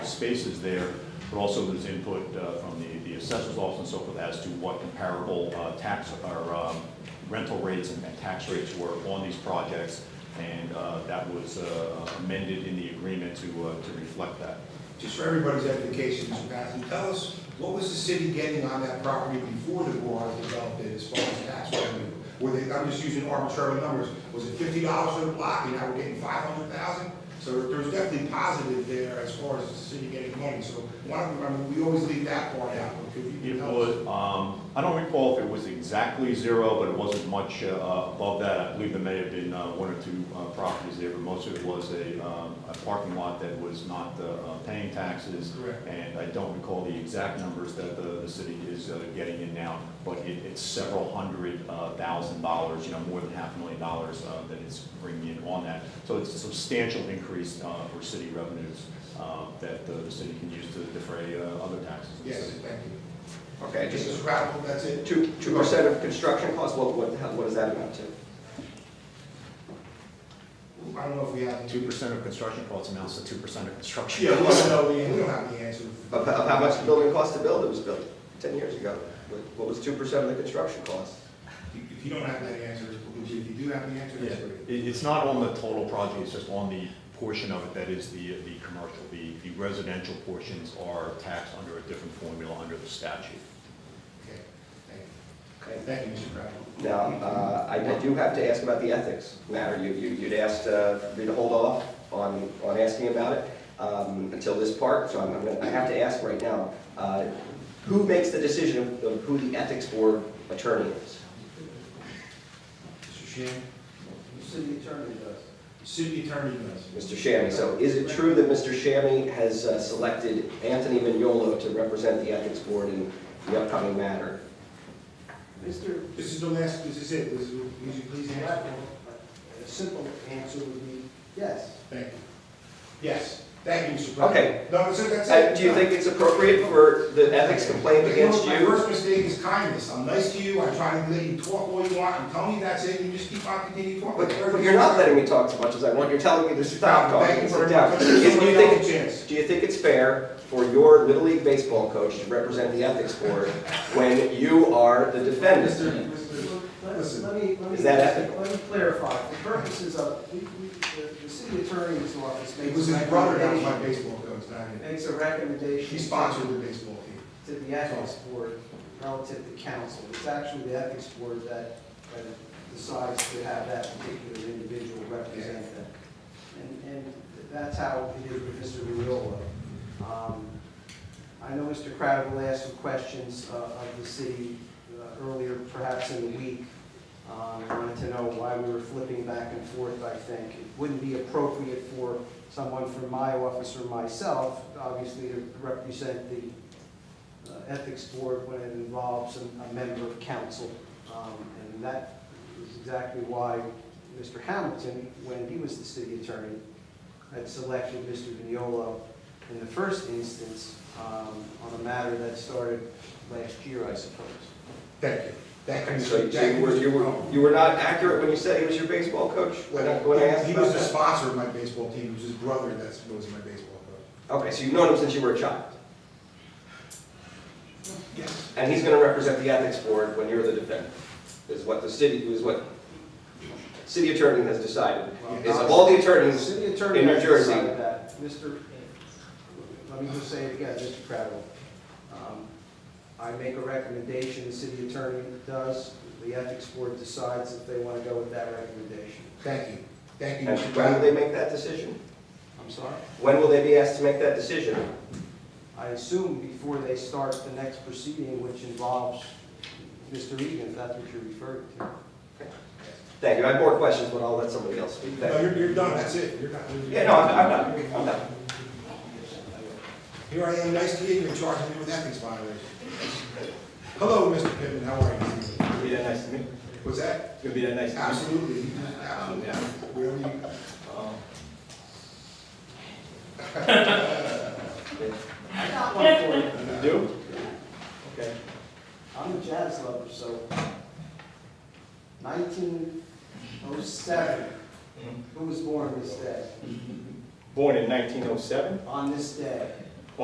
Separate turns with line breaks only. spaces there, but also there's input uh, from the, the assessor's office and so forth as to what comparable uh, tax or um, rental rates and and tax rates were on these projects. And uh, that was uh, amended in the agreement to, uh, to reflect that.
Just for everybody's education, Mr. Patterson, tell us, what was the city getting on that property before the Board developed it as far as tax revenue? Were they, I'm just using arbitrary numbers, was it fifty dollars for the block and now we're getting five hundred thousand? So there's definitely positive there as far as the city getting money, so why don't, we- I mean, we always leave that part out, but could you
It
tell us?
was, um, I don't recall if it was exactly zero, but it wasn't much uh, above that. I believe there may have been uh, one or two uh, properties there, but most of it was a, um, a parking lot that was not uh, uh, paying taxes.
Correct.
And I don't recall the exact numbers that the, the city is uh, getting in now, but it, it's several hundred uh, thousand dollars, you know, more than half a million dollars uh, that it's bringing in on that. So it's a substantial increase uh, for city revenues uh, that the the city can use to defray uh, other taxes. in the
Yes,
city.
thank you.
Okay,
Just as
just
radical, that's it.
two, two percent of construction costs, what, what, how- what does that amount to?
I don't know if we have.
Two percent of construction costs amounts to two percent of construction.
Yeah, we don't know the answer. We don't have the answer.
Of, of how much the building cost to build, it was built ten years ago. What- What was two percent of the construction cost?
If you don't have that answer, if you do have the answer,
Yeah,
that's great.
it, it's not on the total project, it's just on the portion of it that is the, the commercial. The, the residential portions are taxed under a different formula under the statute.
Okay, thank
Okay.
you. Thank you, Mr. Crowell.
Now, uh, I I do have to ask about the ethics matter. You- you- You'd asked uh, me to hold off on on asking about it um, until this part, so I'm- I'm gonna- I have to ask right now. uh, Who makes the decision of- of who the ethics board attorney is?
Mr. Shannon,
The city attorney does.
the city attorney does.
Mr. Shammy. So is it true that Mr. Shammy has uh, selected Anthony Mignolo to represent the ethics board in the upcoming matter?
Mr.
This is the last, this is it, this is, would you please answer?
Blackwell, a simple answer would be yes.
Thank you. Yes, thank you, Mr. Crowell.
Okay.
No, that's it, that's
Uh,
it.
Do you think it's appropriate for the ethics complaint against
My
you?
worst mistake is kindness, I'm nice to you, I try to let you talk all you want, and tell me that's it, and you just keep on continuing talking.
But but you're not letting me talk as much as I want, you're telling me to stop talking
Thank
and
you very
sit
much.
down.
Let's give
If you
somebody
think-
else a chance.
Do you think it's fair for your Little League baseball coach to represent the ethics board when you are the defendant?
Mr. Mr.
Let-
Listen,
Let me, let me.
is that ethical?
Let me clarify, for purposes of, we, we, the, the city attorney's office
It
makes.
was
a
his brother that was my
recommendation-
baseball coach, not him.
Makes a recommendation.
He sponsored the baseball team.
To the ethics board relative to council. It's actually the ethics board that, that decides to have that particular individual represent them. And, and that's how it is with Mr. Mirola. Um I know Mr. Crowder will ask some questions uh, of the city uh, earlier, perhaps in the week. Um, I Wanted to know why we were flipping back and forth, I think. It wouldn't be appropriate for someone from my office or myself, obviously, to represent the uh, ethics board when it involves a a member of council. Um, And that is exactly why Mr. Hamilton, when he was the city attorney, had selected Mr. Vignola in the first instance um, on a matter that started last year, I suppose.
Thank you. Thank you.
So
Mr. Thank
you were, you were,
Mr.
you were not accurate when you said he was your baseball coach? When I, when I
Well,
asked
He
about
was the
that?
sponsor of my baseball team, it was his brother that was my baseball coach.
Okay, so you've known him since you were a child,
Yes.
and he's gonna represent the ethics board when you're the defendant, is what the city, is what city attorney has decided. Is of all the
The
attorneys,
city attorney
in New
has
Jersey.
decided that. Mr., let me just say it again, Mr. Crowell. Um, I make a recommendation, the city attorney does, the ethics board decides if they want to go with that recommendation.
Thank you. Thank you,
and
Mr.
when will they
Brown.
make that decision?
I'm sorry?
When will they be asked to make that decision?
I assume before they start the next proceeding, which involves Mr. Egan, if that's what you're referring to.
Thank you, I have more questions, but I'll let somebody else speak. Thank
No,
you.
you're, you're done, that's it, you're not.
Yeah, no, I'm, I'm not, I'm not.
Here I am, nice to you, you're charging me with ethics violation. Hello, Mr. Pittman, how are you? this evening?
It'd be that nice to meet
What's that?
It'd be that nice
Ah.
to meet
Absolutely, absolutely. Wherever you,
Um,
I got one for you.
You do? Okay.
I'm a jazz lover, so 1907, who was born this day?
Born in 1907?
On this day,